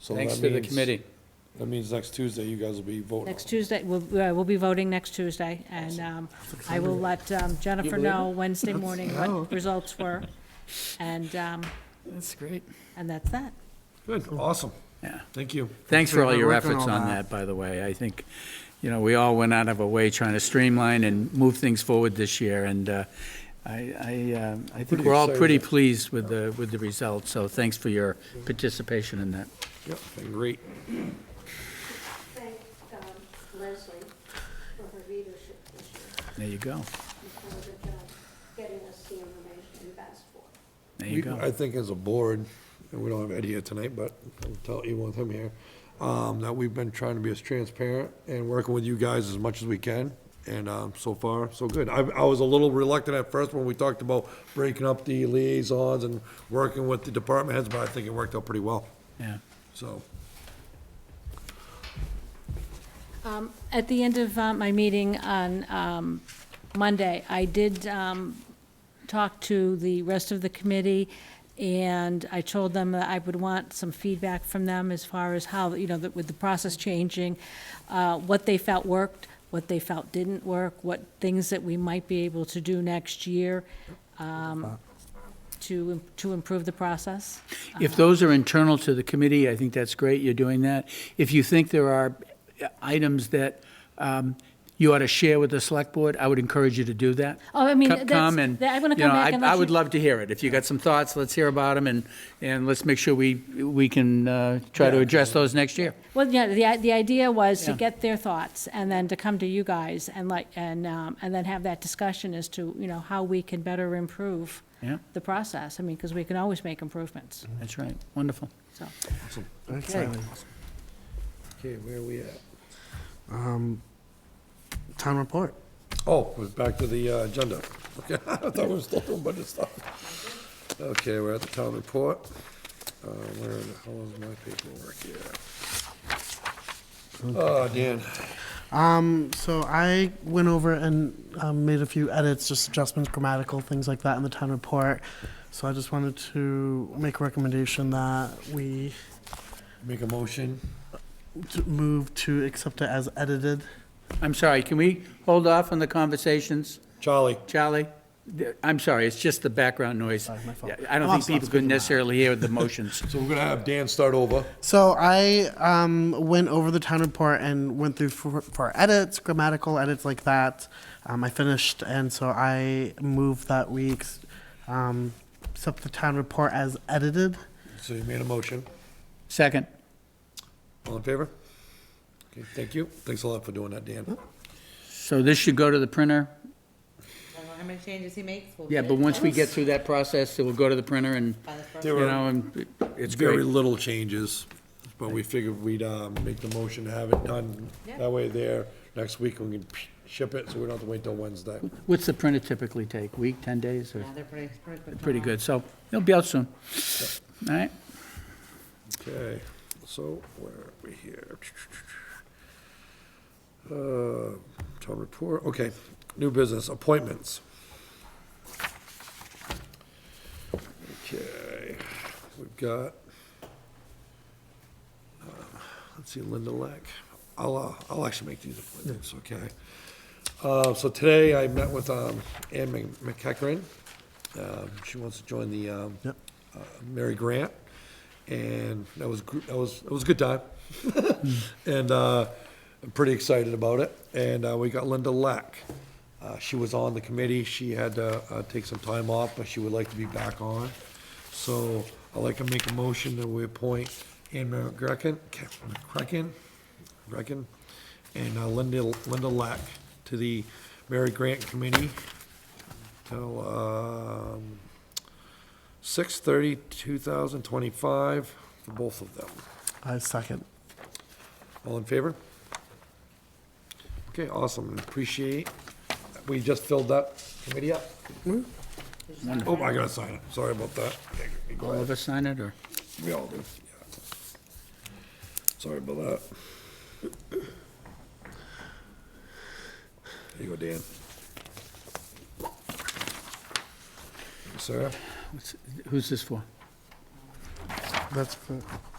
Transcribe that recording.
So Thanks that to the means- committee. That means next Tuesday, you guys will be voting. Next Tuesday, we'll, uh, we'll be voting next Tuesday, and um, I will let um, Jennifer believe know Wednesday morning wow. what results were, and, um, That's great. and that's that. Good, awesome. Yeah. Thank you. Thanks for all Thanks for your working efforts on on that. that, by the way. I think, you know, we all went out of our way trying to streamline and move things forward this year, and uh, I, I, um, I think Pretty we're all excited. pretty pleased with the, with the results, so thanks for your participation in that. Yep, great. thank um, Leslie for her leadership this year. There you go. She's done a good job getting us the information we've asked for. There you We- go. I think as a board, and we don't have Ed here tonight, but I'll tell you with him here, um, that we've been trying to be as transparent and working with you guys as much as we can. And, um, so far, so good. I, I was a little reluctant at first when we talked about breaking up the liaisons and working with the department heads, but I think it worked out pretty well, Yeah. so. Um, At the end of uh, my meeting on um, Monday, I did um, talk to the rest of the committee, and I told them that I would want some feedback from them as far as how, you know, that with the process changing, uh, what they felt worked, what they felt didn't work, what things that we might be able to do next year um, to, to improve the process. If those are internal to the committee, I think that's great, you're doing that. If you think there are uh, items that um, you ought to share with the select board, I would encourage you to do that. Oh, I mean, Co- that's- Come and, you that- I'm gonna know, come back I and let I would you- love to hear it. If you got some thoughts, let's hear about them, and, and let's make sure we, we can uh, try to address those next year. Well, yeah, the, i- the idea was to Yeah. get their thoughts and then to come to you guys and like, and, um, and then have that discussion as to, you know, how we can better improve Yeah. Mm-hmm. the process. I mean, because we can always make improvements, That's right, wonderful. so. Excellent. Okay, where are we at? Town report. Oh, we're back to the uh, agenda. Okay, I thought we were still doing budget stuff. Okay, we're at the town report. Uh, Where the hell is my paperwork here? Oh, Dan, Um, so I went over and um, made a few edits, just adjustments, grammatical things like that in the town report. So I just wanted to make a recommendation that we make a motion. t- move to accept it as edited. I'm sorry, can we hold off on the conversations? Charlie, Charlie? Th- I'm sorry, it's just the background noise. Sorry, my fault. Oh, Yeah, I don't I'm think people could necessarily hear the motions. so we're gonna have Dan start over. So I um, went over the town report and went through for, for edits, grammatical edits like that. Um, I finished, and so I moved that we ex- um, accept the town report as edited. So you made a motion. Second. All in favor? Okay, thank you. Thanks a lot for doing that, Dan. So this should go to the printer? I don't know how many changes he makes. we'll Yeah, get but it once we done get through that process, it will go to the printer and, by the first- There you were- know, and it's Very great. little changes, but we figured we'd um, make the motion to have it done. Yeah. That way there, next week we can ship it, so we don't have to wait till Wednesday. What's the printer typically take, week, 10 days, or? Yeah, they're pretty, pretty quick. Pretty turnaround. good, so it'll be out soon. All right, Okay, so where are we here? Uh, Town report, okay, new business, appointments. Okay, we've got, uh, let's see, Linda Lack. I'll, uh, I'll actually make these appointments, okay? Uh, So today I met with um, Ann Mc- McEachran. Um, She wants to join the um, Yep. uh, Mary Grant, and that was, gr- that was, it was a good time. And uh, I'm pretty excited about it. And uh, we got Linda Lack. Uh, She was on the committee, she had to uh, take some time off, but she would like to be back on. So I'd like to make a motion that we appoint Ann Mary Grecken, Grecken, Grecken, and uh, Linda, Linda Lack to the Mary Grant Committee till, um, 6:30, 2025, for both of them. I second. All in favor? Okay, awesome, appreciate, we just filled that committee up. Oh, I gotta sign it, sorry about that. Okay, go all ahead. of us sign it, or? We all do, yeah. Sorry about that. There you go, Dan. Sarah? what's- Who's this for? That's for.